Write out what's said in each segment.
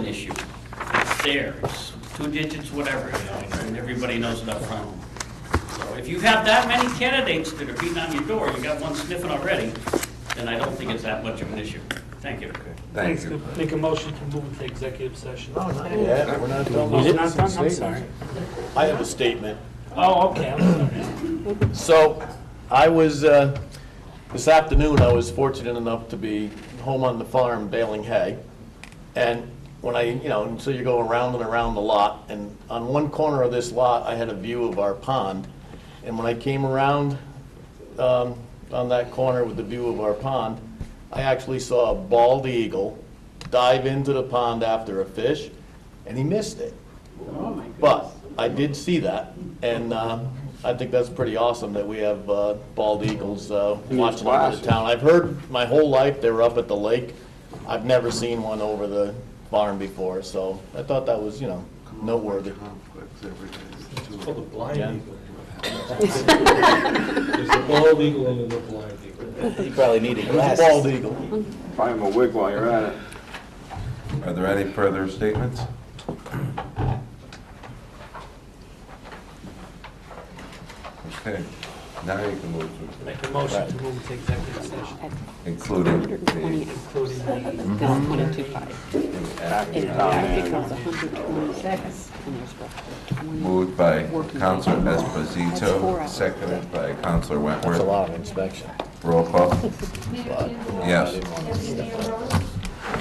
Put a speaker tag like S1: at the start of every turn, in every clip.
S1: issue. It's there, it's two digits, whatever, you know, and everybody knows it up front. So if you have that many candidates that are beating on your door, you got one sniffing already, then I don't think it's that much of an issue. Thank you.
S2: Thank you.
S3: Make a motion to move into executive session.
S4: Oh, No, not yet, we're not doing
S3: Was it
S4: those
S3: not done? I'm
S4: statements.
S3: sorry.
S4: I have a statement.
S3: Oh, okay, I'm sorry.
S4: So, I was, uh, this afternoon, I was fortunate enough to be home on the farm baling hay. And when I, you know, and so you go around and around the lot, and on one corner of this lot, I had a view of our pond. And when I came around um, on that corner with the view of our pond, I actually saw a bald eagle dive into the pond after a fish, and he missed it. But I did see that, and uh, I think that's pretty awesome that we have uh, bald eagles uh, watching over the town. I've heard my whole life they were up at the lake. I've never seen one over the barn before, so I thought that was, you know, noteworthy.
S5: Called a blind
S4: Yeah.
S5: eagle. There's a bald eagle and there's a blind eagle.
S6: You probably need a
S4: It was a bald eagle.
S7: Buy him a wig while you're at it.
S2: Are there any further statements? Okay, now you can move to,
S3: Make a motion to move into executive session,
S2: including the,
S8: 120,
S3: including the,
S8: that's 125. And
S2: action
S8: that becomes 126, and there's roughly 20.
S2: moved by Counselor Esposito, seconded by Counselor
S4: That's a
S2: Wentworth.
S4: lot of inspection.
S2: Roll call?
S4: but, you know, I
S2: Yes.
S4: didn't want to-
S9: Deputy Mayor Rose?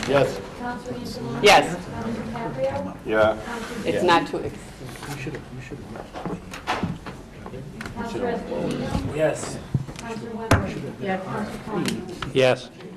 S4: Yes.
S9: Councilor Angeloni?
S8: Yes.
S9: Councilor DiCaprio?
S7: Yeah.
S9: Councilor
S8: It's
S9: Dean?
S8: not to, ex-
S9: Councilor Esposito?
S3: yes.
S9: Councilor Wentworth? Yeah. Councilor Klein?
S3: Yes.